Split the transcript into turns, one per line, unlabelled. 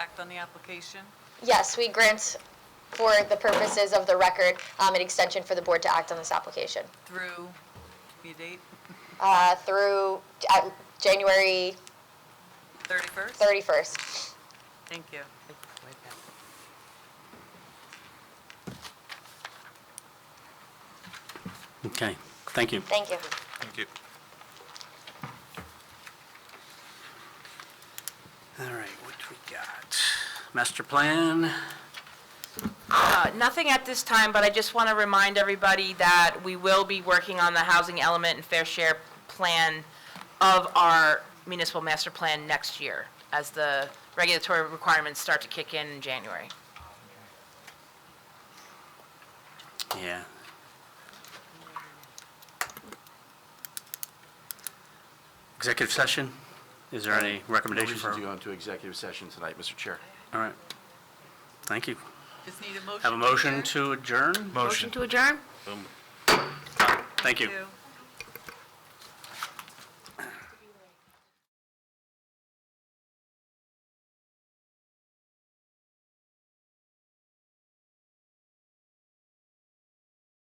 Act on the application?
Yes, we grant for the purposes of the record, um, an extension for the board to act on this application,
Through, be a date,
uh, through, uh, January
31st?
thirty-first.
Thank you.
Okay, thank you.
Thank you.
Thank you.
All right, what we got? Master plan,
Uh, Nothing at this time, but I just want to remind everybody that we will be working on the housing element and fair share plan of our municipal master plan next year, as the regulatory requirements start to kick in in January.
yeah. Executive session, is there any
No
recommendation for?
reason to go into executive session tonight, Mr. Chair.
All right, thank you.
Just need a motion.
Have a
to
motion
adjourn?
to adjourn?
Motion.
to adjourn?
Thank you.
Two.